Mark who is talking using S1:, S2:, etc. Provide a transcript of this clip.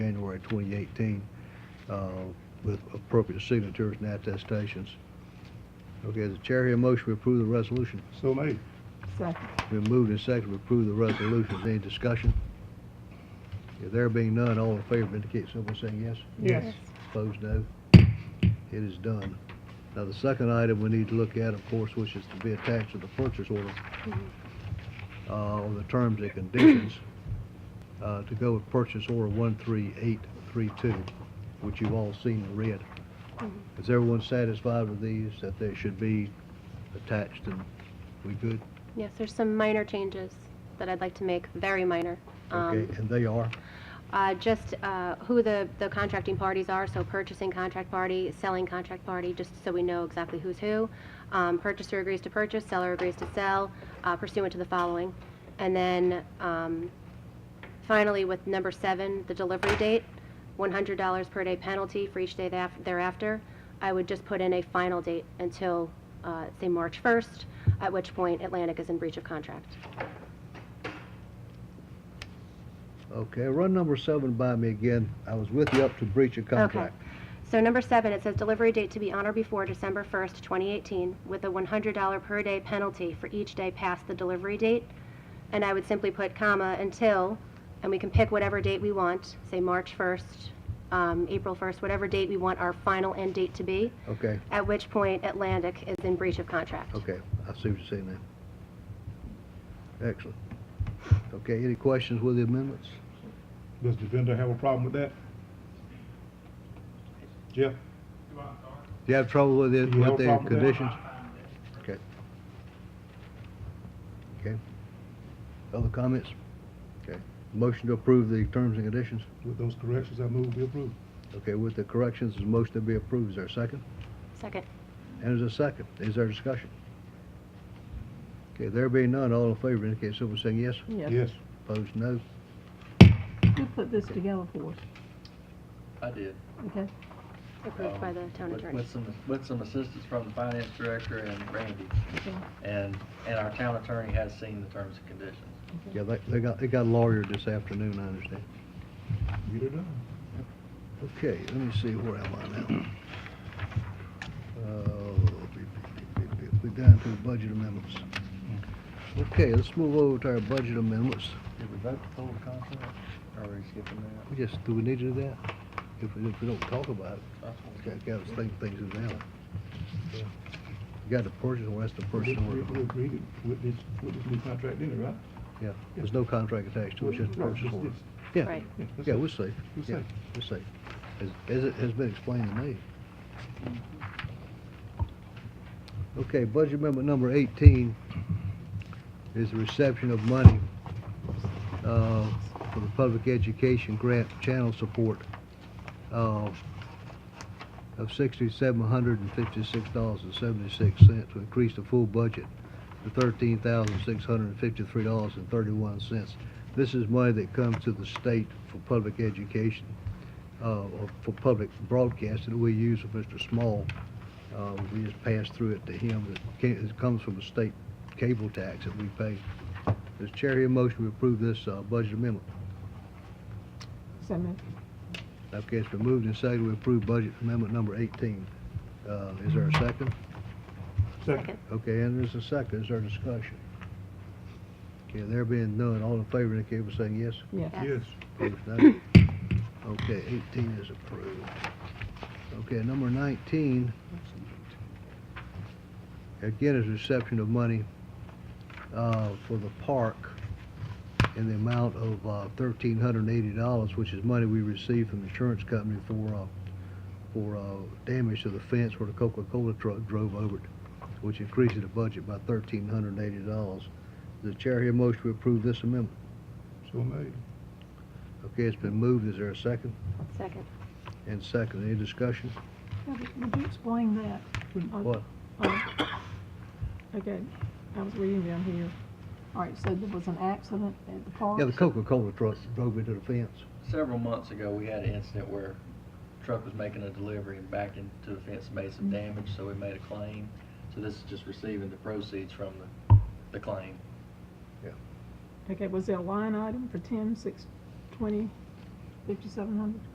S1: January 2018 uh, with appropriate signatures and attestations. Okay, the chair here motion to approve the resolution.
S2: So made.
S3: Second.
S1: Been moved and seconded to approve the resolution. Any discussion? If there being none, all in favor indicate so by saying yes.
S2: Yes.
S1: Opposed, no. It is done. Now, the second item we need to look at, of course, which is to be attached to the purchase order, uh, on the terms and conditions, uh, to go with purchase order 13832, which you've all seen and read. Is everyone satisfied with these, that they should be attached and we good?
S4: Yes, there's some minor changes that I'd like to make, very minor. Um,
S1: Okay, and they are?
S4: uh, Just uh, who the, the contracting parties are, so purchasing contract party, selling contract party, just so we know exactly who's who. Um, Purchaser agrees to purchase, seller agrees to sell uh, pursuant to the following. And then um, finally, with number seven, the delivery date, $100 per day penalty for each day thereaf- thereafter. I would just put in a final date until, uh, say, March 1st, at which point Atlantic is in breach of contract.
S1: Okay, run number seven by me again. I was with you up to breach of contract.
S4: So number seven, it says delivery date to be on or before December 1st, 2018, with a $100 per day penalty for each day past the delivery date. And I would simply put comma until, and we can pick whatever date we want, say March 1st, um, April 1st, whatever date we want our final end date to be,
S1: Okay,
S4: at which point Atlantic is in breach of contract.
S1: okay, I see what you're saying now. Excellent. Okay, any questions with the amendments?
S2: Does the vendor have a problem with that? Jeff?
S1: Do you have trouble with it,
S2: You have
S1: with the
S2: problem with that?
S1: conditions? Okay. Okay. Other comments? Okay. Motion to approve the terms and conditions?
S2: With those corrections, I move we approve.
S1: Okay, with the corrections, the motion to be approved. Is there a second?
S4: Second.
S1: And there's a second. Is there discussion? Okay, there being none, all in favor indicate so by saying yes.
S2: Yes.
S1: Opposed, no.
S3: Who put this together for us?
S5: I did.
S3: Okay,
S4: Approved by the town
S5: with-
S4: attorney.
S5: With some, with some assistance from the finance director and Randy.
S3: Okay.
S5: And, and our town attorney has seen the terms and conditions.
S1: Yeah, they, they got, they got lawyered this afternoon, I understand.
S2: Get it done.
S1: Okay, let me see, where am I now? Uh, We're down to budget amendments. Okay, let's move over to our budget amendments.
S5: Did we vote to pull the contract, or are we skipping
S1: We just, do we need to do that? If we, if we don't talk about it,
S5: that?
S1: okay, I gotta think things are down. You got the purchase order, that's the purchase
S2: We- We we
S1: order.
S2: agreed it with this, with this new contract, didn't we, right?
S1: Yeah, there's no contract attached to it, it's just
S2: Right,
S1: purchase
S2: just
S1: order.
S2: this.
S1: Yeah,
S4: Right.
S2: Yeah, that's
S1: yeah,
S2: it.
S1: we're safe.
S2: We're
S1: Yeah,
S2: safe.
S1: We're safe. As, as it has been explained to me. Okay, budget amendment number eighteen is the reception of money, uh, for the public education grant channel support, uh, of sixty-seven hundred and fifty-six dollars and seventy-six cents to increase the full budget to thirteen thousand six hundred and fifty-three dollars and thirty-one cents. This is money that comes to the state for public education, uh, or for public broadcast that we use with Mr. Small. Uh, we just pass through it to him. It ca- It comes from the state cable tax that we pay. Does chair hear a motion to approve this, uh, budget amendment?
S3: so moved.
S1: Okay, it's been moved and seconded. We approve budget amendment number eighteen. Uh, is there a second?
S2: Second.
S1: Okay, and there's a second, is there discussion? Okay, there being none, all in favor indicate by saying yes.
S3: Yes.
S2: Yes.
S1: Opposed, no. Okay, eighteen is approved. Okay, number nineteen. Again, is reception of money, uh, for the park in the amount of, uh, thirteen hundred and eighty dollars, which is money we received from the insurance company for, uh, for, uh, damage to the fence where the Coca-Cola truck drove over it, which increases the budget by thirteen hundred and eighty dollars. The chair here motion to approve this amendment.
S2: So made.
S1: Okay, it's been moved. Is there a second?
S4: Second.
S1: And second, any discussion?
S3: Now, Would would you explain that? Uh,
S1: What?
S3: uh, Okay, I was reading down here. All right, so there was an accident at the park?
S1: Yeah, the Coca-Cola truck drove into the fence.
S5: Several months ago, we had an incident where truck was making a delivery and backed into the fence, made some
S4: Mm-hmm.
S5: damage, so we made a claim. So this is just receiving the proceeds from the, the claim.
S3: Okay, was there a line item for ten, six, twenty? fifty-seven hundred?